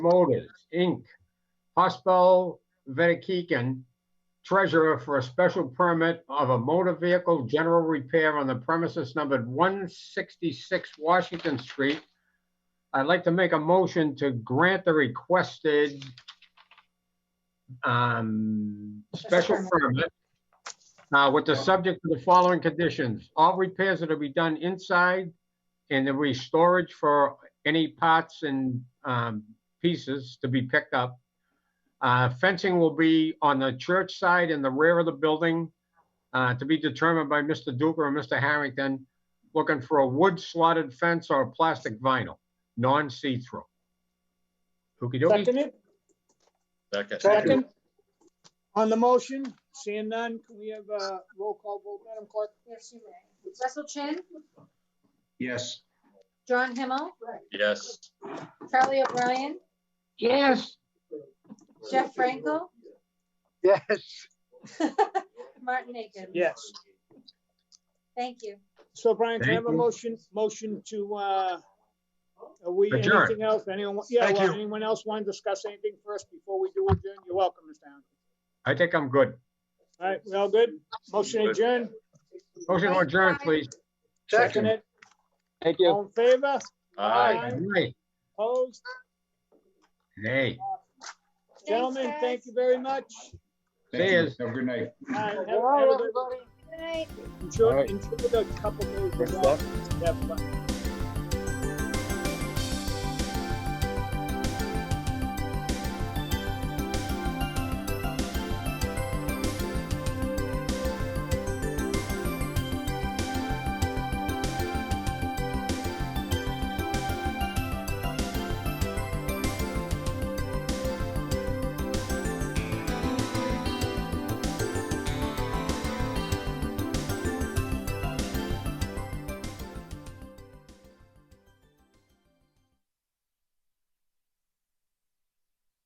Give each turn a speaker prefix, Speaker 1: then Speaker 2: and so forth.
Speaker 1: Motors, Inc., Hospel Vedekeken, treasurer for a special permit of a motor vehicle general repair on the premises numbered 166 Washington Street. I'd like to make a motion to grant the requested um, special permit uh, with the subject to the following conditions. All repairs that are to be done inside and there'll be storage for any parts and um, pieces to be picked up. Uh, Fencing will be on the church side in the rear of the building, uh, to be determined by Mr. Duker or Mr. Harrington, looking for a wood slotted fence or a plastic vinyl, non-see-through. Okey-dokey.
Speaker 2: Seconded,
Speaker 3: Second.
Speaker 2: second. On the motion, seeing none, can we have a roll call vote, Madam Clerk?
Speaker 4: Yes, you may. Russell Chin,
Speaker 5: Yes.
Speaker 4: John Himmel,
Speaker 3: Yes.
Speaker 4: Charlie O'Brien,
Speaker 1: Yes,
Speaker 4: Jeff Frankel,
Speaker 6: Yes.
Speaker 4: Martin Aiken.
Speaker 2: Yes.
Speaker 4: Thank you.
Speaker 2: So Brian, can I have a
Speaker 1: Thank you.
Speaker 2: motion, motion to, uh, are we,
Speaker 1: Adjourn.
Speaker 2: anything else, anyone, yeah,
Speaker 5: Thank
Speaker 2: well,
Speaker 5: you.
Speaker 2: anyone else want to discuss anything first before we do adjourn? You're welcome, Mr. Townsend.
Speaker 1: I think I'm good.
Speaker 2: All right, we all good? Motion adjourned,
Speaker 1: Motion to adjourn, please.
Speaker 6: Second.
Speaker 2: seconded,
Speaker 6: Thank
Speaker 2: all in favor?
Speaker 3: Aye.
Speaker 1: Nay,
Speaker 2: Opposed?
Speaker 1: nay.
Speaker 2: Gentlemen,
Speaker 4: guys.
Speaker 2: thank you very much.
Speaker 5: Thank
Speaker 1: Cheers.
Speaker 5: you. Have a good night.
Speaker 2: All right, have-
Speaker 4: All
Speaker 2: have a
Speaker 4: right,
Speaker 2: good-
Speaker 4: everybody. Good night.
Speaker 2: Enjoy,
Speaker 6: All right.
Speaker 2: enjoy the couple days.
Speaker 6: Good
Speaker 2: of-
Speaker 6: stuff.
Speaker 2: Have fun.